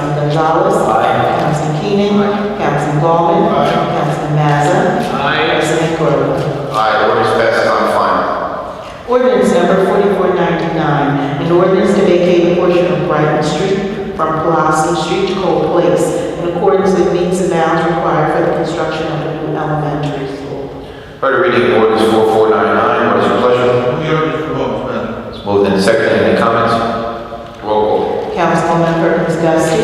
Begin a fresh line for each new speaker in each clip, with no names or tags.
Gonzalez. Aye. Councilman Keenan. Councilman Ballman.
Aye.
Councilman Mazza.
Aye.
President Corrigan.
Aye, ordinance passes on final.
Ordinance number 4499, an ordinance to vacate a portion of Brighton Street from Pulaski Street to Cole Place in accordance with means and bounds required for the construction of a new elementary school.
Heard the reading of ordinance 4499, what is your pleasure?
Move the ordinance for vote, Madam.
It's moved and seconded, any comments? Roll call.
Councilwoman Perkins Dusty.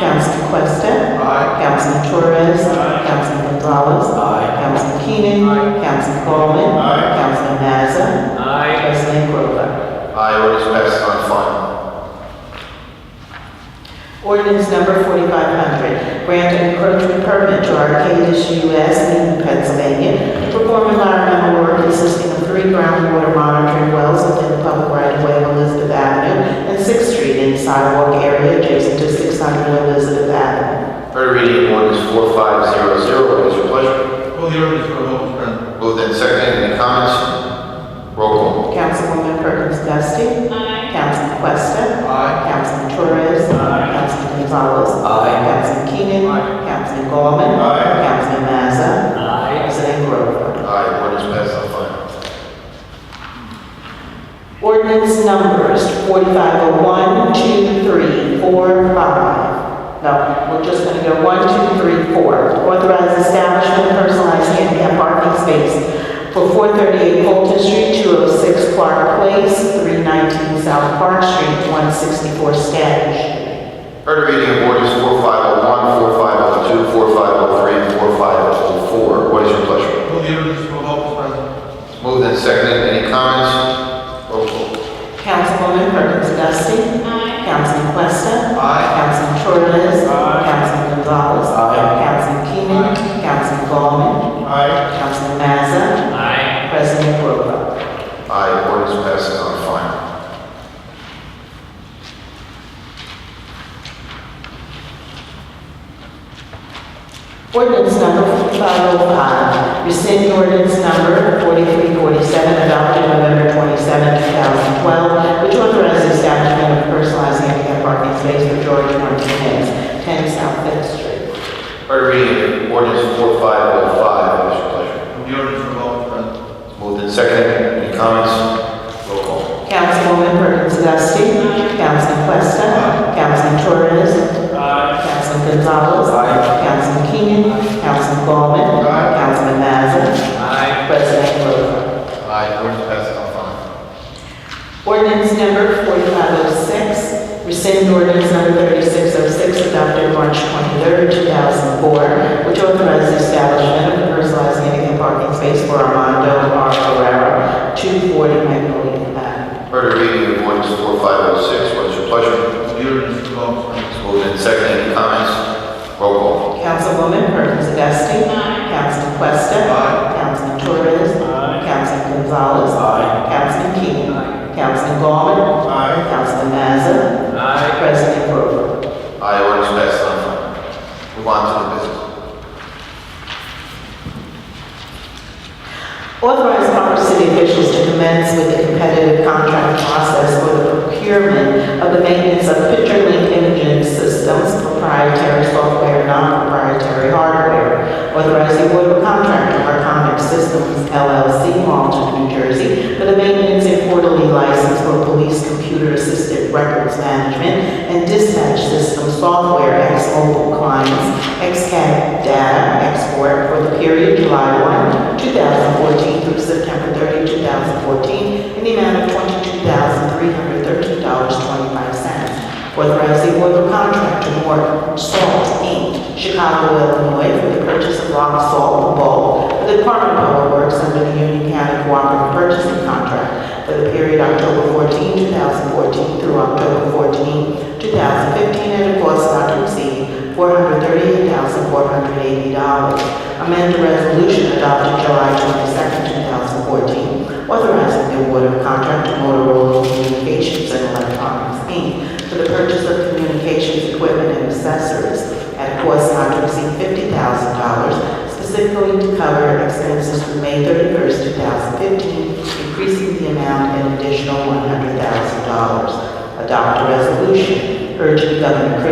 Councilman Questa.
Aye.
Councilman Torres.
Aye.
Councilman Gonzalez. Councilman Keenan. Councilman Ballman.
Aye.
Councilman Mazza. President Grover.
Aye, ordinance passes on final.
Ordinance number 4500, grant an encroachment permit to Arcadis US, Newton, Pennsylvania, to perform environmental work consisting of three groundwater monitoring wells within the public right-of-way of Elizabeth Avenue and Sixth Street in the sidewalk area adjacent to 600 Elizabeth Avenue.
Heard the reading of ordinance 4500, what is your pleasure?
Move the ordinance for vote, Madam.
Moved and seconded, any comments? Roll call.
Councilwoman Perkins Dusting. Councilman Questa.
Aye.
Councilman Torres.
Aye.
Councilman Gonzalez.
Aye.
Councilman Keenan.
Aye.
Councilman Gollman.
Aye.
Councilman Mazza. President Grover.
Aye, ordinance passes on final.
Ordinance numbers 4501, 2, 3, 4, 5. No, we're just going to go 1, 2, 3, 4. Authorize establishment of personalized handicap parking space for 438 Fulton Street, 206 Clark Place, 319 South Park Street, 164 Stanton Street.
Heard the reading of ordinance 4501, 4502, 4503, 4504, what is your pleasure?
Move the ordinance for vote, Madam.
Moved and seconded, any comments? Roll call.
Councilwoman Perkins Dusty. Councilman Questa.
Aye.
Councilman Torres.
Aye.
Councilman Gonzalez.
Aye.
Councilman Keenan. Councilman Gollman.
Aye.
Councilman Mazza.
Aye.
President Grover.
Aye, ordinance passes on final.
Ordinance number 505, rescind ordinance number 4347 adopted November 27, 2012, which authorizes establishment of personalized handicap parking space for George Martinez, 10 South Fifth Street.
Heard reading of ordinance 4505, what oh, is your pleasure?
Move the ordinance for vote, Madam.
It's Moved and seconded, any comments? Roll call.
Councilwoman Perkins Dusty. Councilman Questa. Councilman Torres.
Aye.
Councilman Gonzalez. Councilman Keenan. Councilman Gollman.
Aye.
Councilman Mazza.
Aye.
President Grover.
Aye, ordinance passes on final.
Ordinance number 4506, rescind ordinance number 3606 adopted March 23, 2004, which authorized the establishment of a personalized handicap parking space for Armando R. Ferrera, 240 Magnolia Avenue.
Heard the reading of ordinance 4506, oh, what is your pleasure?
Move the ordinance for vote, Madam.
It's Moved and seconded, any comments? Roll call.
Councilwoman Perkins Dusting. Councilman Questa.
Aye.
Councilman Torres.
Aye.
Councilman Gonzalez. Councilman Keenan. Councilman Gollman.
Aye.
Councilman Mazza.
Aye.
President Grover.
Aye, ordinance passed on final. Move on to the business.
Authorize proper city officials to commence with the competitive contract process for the procurement of the maintenance of picture link imaging systems, proprietary software, non-proprietary hardware. Authorize the award of contract to Arconic Systems LLC, Malta, New Jersey, for the maintenance and quarterly license for police computer-assisted records management and dispatch system software, ex-mobile clients, ex-CAD data export for the period July 1, 2014 through September 30, 2014, in the amount of $22,313.25. Authorize the award of contract to Moore Salt Inc., Chicago, Illinois, for the purchase of rock salt and bulk for the Department of Public Works under the Union County Cooperative Purchasing Contract for the period October 14, 2014 through October 14, 2015, at a cost not to exceed $438,480. Amend the resolution adopted July 22, 2014, authorizing the award of contract to Motorola Communications and Electronics, Inc. for the purchase of communications equipment and accessories at a cost not to exceed $50,000, specifically to cover expenses through May 31st, 2015, increasing the amount an additional $100,000. Adopt a resolution urging Governor Chris